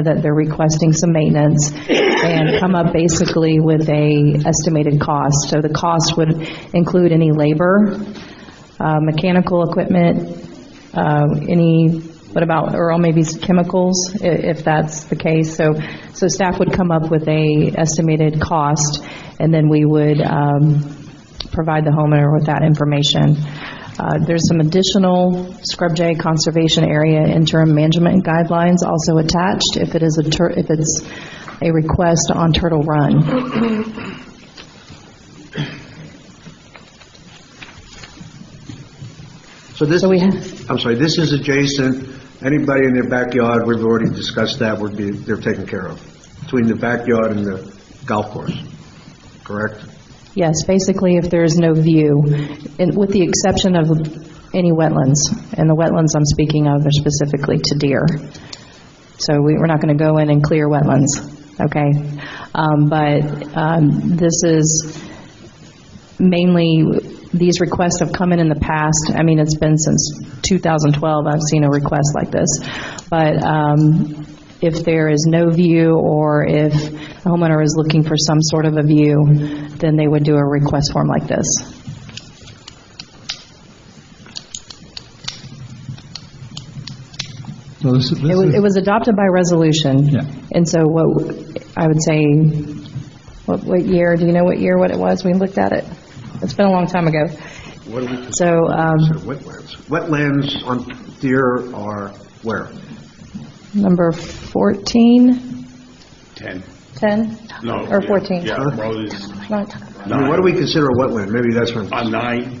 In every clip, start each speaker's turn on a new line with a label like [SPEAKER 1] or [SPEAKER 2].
[SPEAKER 1] that they're requesting some maintenance and come up basically with a estimated cost. So the cost would include any labor, uh, mechanical equipment, uh, any, what about, or maybe chemicals, i- if that's the case. So, so staff would come up with a estimated cost, and then we would um, provide the homeowner with that information. Uh, There's some additional Scrub J Conservation Area interim management guidelines also attached if it is a, tur- if it's a request on Turtle Run.
[SPEAKER 2] So this,
[SPEAKER 1] So we-
[SPEAKER 2] I'm sorry, this is adjacent, anybody in their backyard, we've already discussed that, would be, they're taken care of, between the backyard and the golf course, correct?
[SPEAKER 1] Yes, basically if there is no view, and with the exception of any wetlands, and the wetlands I'm speaking of are specifically to deer. So we- we're not going to go in and clear wetlands, okay? Um, But um, this is, mainly, these requests have come in in the past. I mean, it's been since 2012 I've seen a request like this. But um, if there is no view, or if a homeowner is looking for some sort of a view, then they would do a request form like this.
[SPEAKER 3] So this is,
[SPEAKER 1] It
[SPEAKER 3] this
[SPEAKER 1] was,
[SPEAKER 3] is-
[SPEAKER 1] it was adopted by resolution.
[SPEAKER 3] Yeah.
[SPEAKER 1] And so what, I would say, what, what year, do you know what year, what it was? We looked at it. It's been a long time ago.
[SPEAKER 2] What do we consider
[SPEAKER 1] So, um,
[SPEAKER 2] wetlands? Wetlands on deer are where?
[SPEAKER 1] Number 14,
[SPEAKER 4] 10.
[SPEAKER 1] 10?
[SPEAKER 4] No.
[SPEAKER 1] Or
[SPEAKER 4] yeah,
[SPEAKER 1] 14?
[SPEAKER 4] Yeah,
[SPEAKER 2] Huh?
[SPEAKER 4] well, it's
[SPEAKER 1] Right.
[SPEAKER 2] I mean, what do we consider a wetland? Maybe that's what,
[SPEAKER 4] on Uh, nine.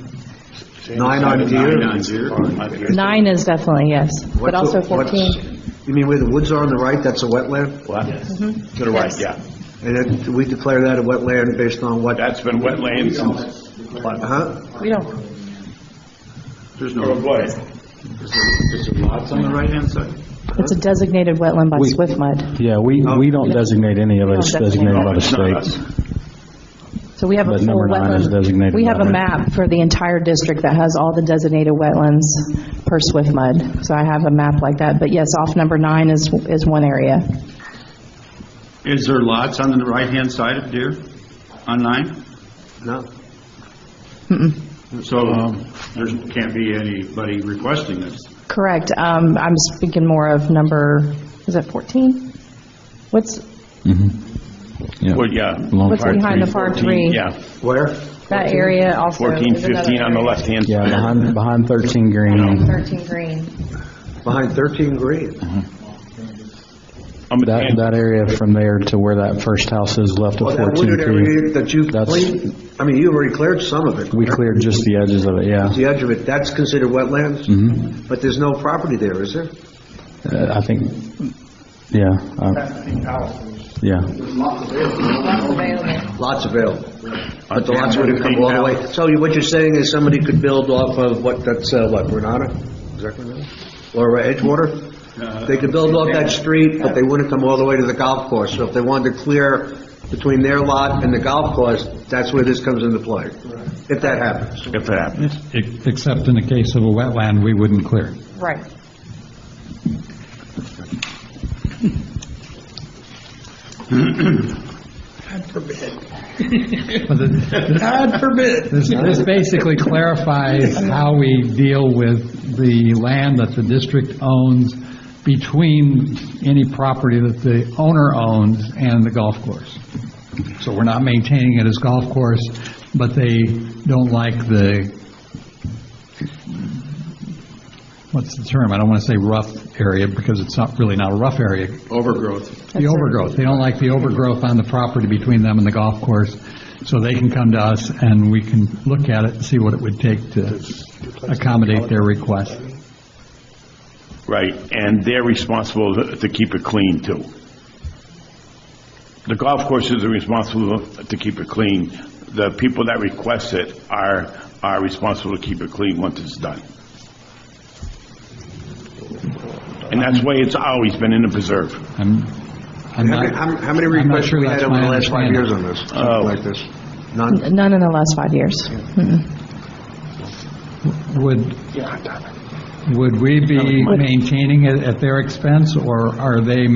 [SPEAKER 2] Nine on deer?
[SPEAKER 4] Nine on deer. on deer.
[SPEAKER 1] Nine is definitely, yes, but
[SPEAKER 2] what's a-
[SPEAKER 1] also
[SPEAKER 2] what's-
[SPEAKER 1] 14.
[SPEAKER 2] You mean where the woods are on the right, that's a wetland?
[SPEAKER 4] What?
[SPEAKER 1] Mm-hmm.
[SPEAKER 4] To the right, yeah.
[SPEAKER 2] And then do we declare that a wetland based on what,
[SPEAKER 4] That's been wetlands since.
[SPEAKER 2] huh?
[SPEAKER 1] We don't,
[SPEAKER 4] There's no. What? There's lots on the right-hand side.
[SPEAKER 1] it's a designated wetland by
[SPEAKER 5] We-
[SPEAKER 1] SWIFMUD.
[SPEAKER 5] Yeah, we, we don't designate any of it, it's
[SPEAKER 1] We don't designate
[SPEAKER 5] designated by the
[SPEAKER 4] It's not us.
[SPEAKER 5] state.
[SPEAKER 1] So we have a
[SPEAKER 5] But
[SPEAKER 1] full
[SPEAKER 5] number nine is
[SPEAKER 1] wetland.
[SPEAKER 5] designated
[SPEAKER 1] We have a
[SPEAKER 5] wetland.
[SPEAKER 1] map for the entire district that has all the designated wetlands per SWIFMUD. So I have a map like that, but yes, off number nine is, is one area.
[SPEAKER 4] Is there lots on the right-hand side of deer on nine?
[SPEAKER 2] No?
[SPEAKER 4] So
[SPEAKER 5] Um,
[SPEAKER 4] there can't be anybody requesting this.
[SPEAKER 1] Correct, um, I'm speaking more of number, is it 14? What's,
[SPEAKER 5] Yeah.
[SPEAKER 4] Well, yeah.
[SPEAKER 5] Long-
[SPEAKER 1] What's
[SPEAKER 4] Part
[SPEAKER 1] behind the
[SPEAKER 4] three,
[SPEAKER 1] par
[SPEAKER 4] 14,
[SPEAKER 1] three?
[SPEAKER 4] Yeah,
[SPEAKER 2] Where?
[SPEAKER 1] that area also?
[SPEAKER 4] 14,
[SPEAKER 1] is another
[SPEAKER 4] 15 on the
[SPEAKER 1] area.
[SPEAKER 4] left-hand
[SPEAKER 5] Yeah,
[SPEAKER 4] side.
[SPEAKER 5] behind, behind 13 Green,
[SPEAKER 1] 13 green.
[SPEAKER 2] Behind 13 Green.
[SPEAKER 4] I'm a
[SPEAKER 5] that,
[SPEAKER 4] tan-
[SPEAKER 5] that area from there to where that first house is left
[SPEAKER 2] Well,
[SPEAKER 5] of
[SPEAKER 2] Oh, that
[SPEAKER 5] 14
[SPEAKER 2] wooded
[SPEAKER 5] Green.
[SPEAKER 2] area that you
[SPEAKER 5] That's-
[SPEAKER 2] cleaned, I mean, you already cleared some of it.
[SPEAKER 5] We cleared just the edges of it, yeah.
[SPEAKER 2] The edge of it, that's considered wetlands? Mm-hmm. But there's no property there, is there?
[SPEAKER 5] Uh, I think, yeah, uh, yeah.
[SPEAKER 2] Lots available. But the lots wouldn't come all the way. So you- what you're saying is somebody could build off of what, that's, uh, what, Renata? Is that Renata? Or uh, Edgewater? They could build off that street, but they wouldn't come all the way to the golf course. So if they wanted to clear between their lot and the golf course, that's where this comes into play, if that happens.
[SPEAKER 4] If it happens.
[SPEAKER 3] ex- except in the case of a wetland, we wouldn't clear.
[SPEAKER 1] Right.
[SPEAKER 3] God forbid. This this basically clarifies how we deal with the land that the district owns between any property that the owner owns and the golf course. So we're not maintaining it as golf course, but they don't like the, what's the term? I don't want to say rough area, because it's not, really not a rough area.
[SPEAKER 4] Overgrowth.
[SPEAKER 3] The overgrowth, they don't like the overgrowth on the property between them and the golf course, so they can come to us and we can look at it and see what it would take to accommodate their request.
[SPEAKER 4] Right, and they're responsible to- to keep it clean, too. The golf courses are responsible to keep it clean. The people that request it are, are responsible to keep it clean once it's done. And that's the way it's always been in the preserve.
[SPEAKER 3] I'm, I'm
[SPEAKER 2] How many-
[SPEAKER 3] not,
[SPEAKER 2] How how many
[SPEAKER 3] I'm not
[SPEAKER 2] requests
[SPEAKER 3] sure
[SPEAKER 2] we had
[SPEAKER 3] that's
[SPEAKER 2] over
[SPEAKER 3] my
[SPEAKER 2] the last five
[SPEAKER 3] understanding. Oh.
[SPEAKER 2] years on this, something
[SPEAKER 4] Oh.
[SPEAKER 2] like this? None?
[SPEAKER 1] None in the last five years.
[SPEAKER 3] would, would we be maintaining it at their expense, or are they